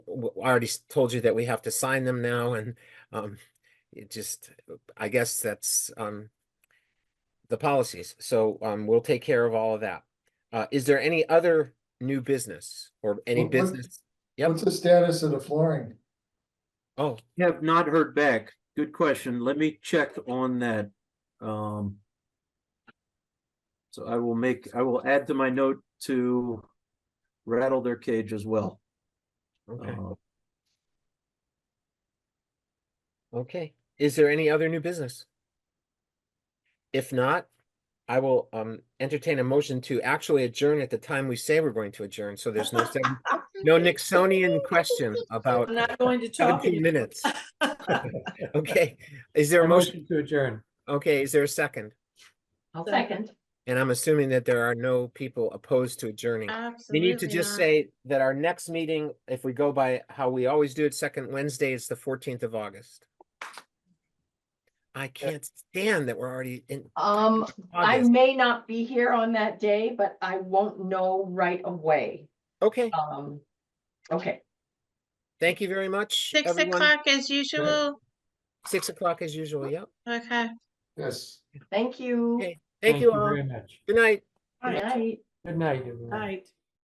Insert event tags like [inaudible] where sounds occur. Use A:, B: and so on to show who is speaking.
A: w- I already s- told you that we have to sign them now and, um, it just, I guess that's, um, the policies. So, um, we'll take care of all of that. Uh, is there any other new business or any
B: What- what-
A: business? Yep.
B: What's the status of the flooring?
A: Oh,
C: Have not heard back. Good question. Let me check on that. Um. So I will make, I will add to my note to rattle their cage as well.
A: okay,
C: Uh,
A: okay. Is there any other new business? If not, I will, um, entertain a motion to actually adjourn at the time we say we're going to adjourn. So there's no, seven- no Nixonian question about
D: I'm not going to talk.
A: seventeen
D: anymore. [laughs]
A: minutes. Okay, is there a motion?
E: to adjourn.
A: Okay, is there a second?
D: I'll second.
A: And I'm assuming that there are no people opposed to adjourning. We need to
D: Absolutely
A: just
D: not.
A: say that our next meeting, if we go by how we always do it, second Wednesday is the fourteenth of August. I can't stand that we're already in
D: Um, I
A: August.
D: may not be here on that day, but I won't know right away.
A: Okay,
D: Um, okay.
A: thank you very much.
F: Six
A: everyone.
F: o'clock as usual.
A: Six o'clock as usual, yep.
F: Okay.
B: Yes.
D: Thank you.
A: Okay, Thank you all.
E: Very much.
A: Good night.
D: Good night.
E: Good night, everyone.
G: Night.